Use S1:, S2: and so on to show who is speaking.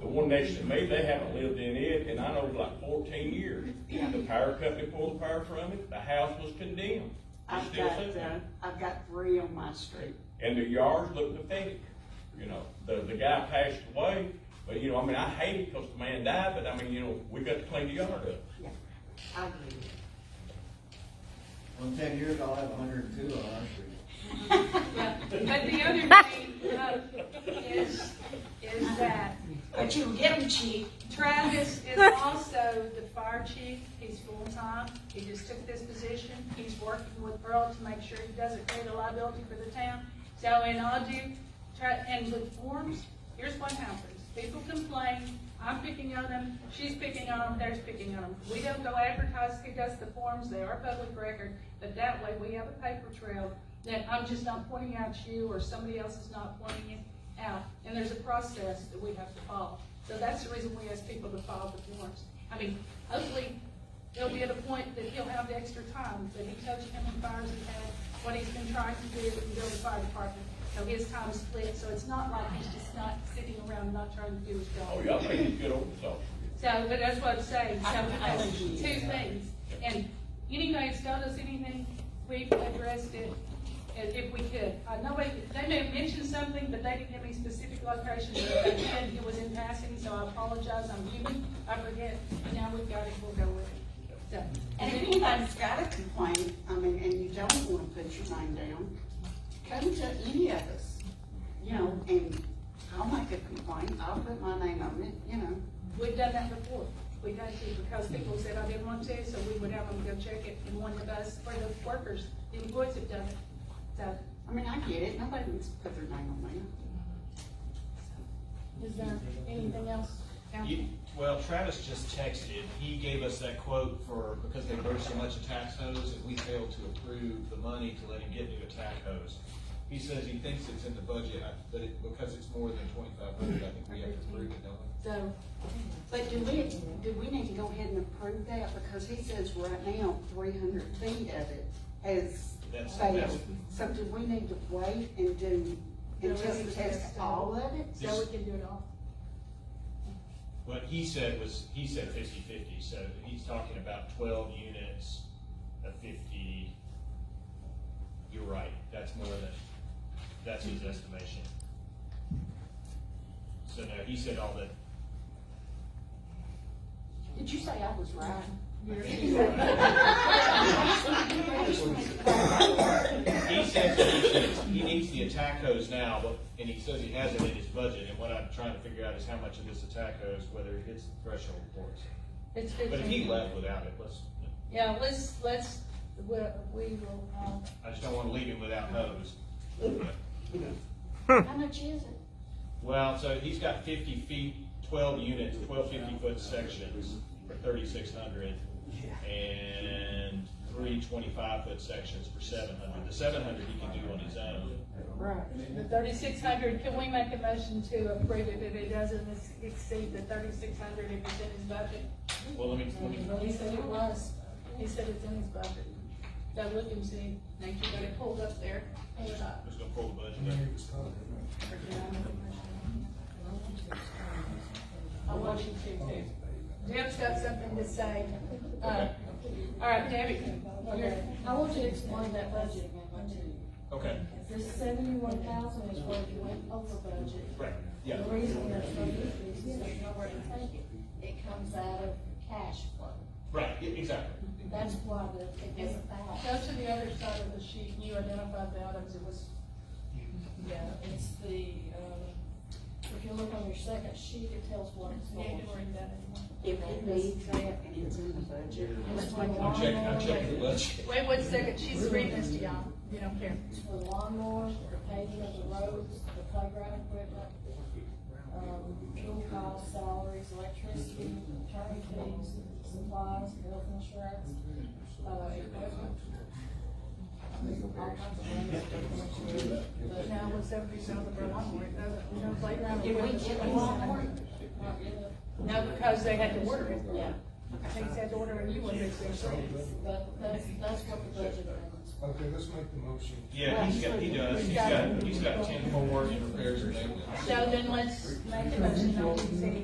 S1: one next to me, they haven't lived in it, and I know for like fourteen years. The power company pulled the power from it, the house was condemned. It's
S2: I've
S1: still
S2: got,
S1: sitting
S2: uh,
S1: there.
S2: I've got three on my street.
S1: And the yards look pathetic, you know, the, the guy passed away, but you know, I mean, I hate it because the man died, but I mean, you know, we got to clean the yard up.
S2: Yeah, I agree. with you.
S3: Well, in ten years, I'll have hundred and two on our street.
S4: But the other thing uh, is, is that
S2: But you can get them cheap.
S4: Travis is also the fire chief. He's full-time. He just took this position. He's working with Earl to make sure he doesn't create a liability for the town. So, and I'll do, tra- and with forms, here's what happens. People complain, I'm picking on them, she's picking on them, there's picking on them. We don't go advertise who does the forms. They are public record, but that way we have a paper trail that I'm just not pointing out you or somebody else is not pointing it out, and there's a process that we have to follow. So that's the reason we ask people to file the forms. I mean, hopefully, he'll be at a point that he'll have the extra time, but he tells you how many fires he's had, what he's been trying to do, and build a fire department, so his time's split, so it's not like he's just not sitting around not trying to do his job.
S1: Oh, y'all think he's good old salt.
S4: So, but that's what I'm saying, so
S2: I- I
S4: it's
S2: agree.
S4: two things, and anybody that's done us anything, we've addressed it, and if we could. I know they, they may have mentioned something, but they didn't give me specific locations, if they did, it was in passing, so I apologize, I'm human, I forget, but now we've got it, we'll go with it. So,
S2: And if anybody's got a complaint, I mean, and you don't wanna put your name down, come to any of us, you know, and I'll make a complaint, I'll put my name on it, you know.
S4: We've done that before. We had to because people said I didn't want to, so we would have them go check it, and one of us, or the workers, the employees have done it. So,
S2: I mean, I get it, nobody wants to put their name on there.
S4: is there anything else?
S5: You, well, Travis just texted, he gave us that quote for, because they burned so much of tax hose, and we failed to approve the money to let him get new attack hose. He says he thinks it's in the budget, I- but it, because it's more than twenty-five hundred, I think we have to approve it, don't we?
S4: So,
S2: But do we, do we need to go ahead and approve that, because he says right now, three hundred feet of it has
S5: That's-
S2: failed.
S5: that's-
S2: So do we need to wait and do, and
S4: No, we
S2: just test
S4: test all.
S2: all of it?
S4: so we can do it all.
S5: What he said was, he said fifty-fifty, so he's talking about twelve units of fifty. You're right, that's more than, that's his estimation. So no, he said all the,
S2: Did you say I was right?
S5: He says that he needs, he needs the attack hose now, but, and he says he has it in his budget, and what I'm trying to figure out is how much of this attack hose, whether it hits the threshold for us.
S4: It's
S5: But if he
S4: fifteen.
S5: left without it, let's,
S4: Yeah, let's, let's, we, we will, um,
S5: I just don't wanna leave him without hose.
S2: How much is it?
S5: Well, so he's got fifty feet, twelve units, twelve fifty-foot sections for thirty-six hundred, and three twenty-five-foot sections for seven hundred. The seven hundred he can do on his own.
S4: right, the thirty-six hundred, can we make a motion to approve it if it doesn't ex- exceed the thirty-six hundred if it's in his budget?
S5: Well, let me, let me
S4: Well, he said it was, he said it's in his budget. So look and see, now you got it pulled up there, pull it up.
S5: Just gonna pull the budget up.
S4: I want you to too. Deb's got something to say. Uh, All right, Debbie, you're-
S6: I want you to explain that budget again, my two.
S5: Okay,
S6: This seventy-one thousand is where you went over budget.
S5: right, yeah.
S6: The reason there's no increase is there's nowhere to take it. It comes out of cash flow.
S5: Right, e- exactly.
S6: That's why the, it doesn't
S4: go
S6: balance.
S4: to the other side of the sheet, and you identified the items, it was,
S6: Yeah, it's the,
S4: uh,
S6: um, if you look on your second sheet, it tells what it's
S4: you
S6: going
S4: ain't
S6: to.
S4: doing that anymore.
S2: If it needs that and it's in the budget.
S6: It's for
S5: I'm checking, I'm checking the
S6: lawnmower,
S5: budget.
S4: Wait one second, she's reading this to y'all, you don't care.
S6: it's for lawnmowers, the paving of the roads, the playground equipment, um, fuel costs, salaries, electricity, attorney fees, supplies, health insurance, uh, equipment. All kinds of things. But
S4: Now,
S6: now
S4: with seventy thousand for lawnmower, it doesn't, you know, playground.
S2: Did we get one more?
S6: it's not really-
S4: No, because they had to order it.
S2: Yeah.
S4: They had to order a new one, it's their service.
S6: But that's, that's what the budget amendments.
S7: Okay, let's make the motion.
S5: Yeah, he's got, he does, he's got, he's got ten more in repairs and maintenance.
S4: So then let's make a motion, I'll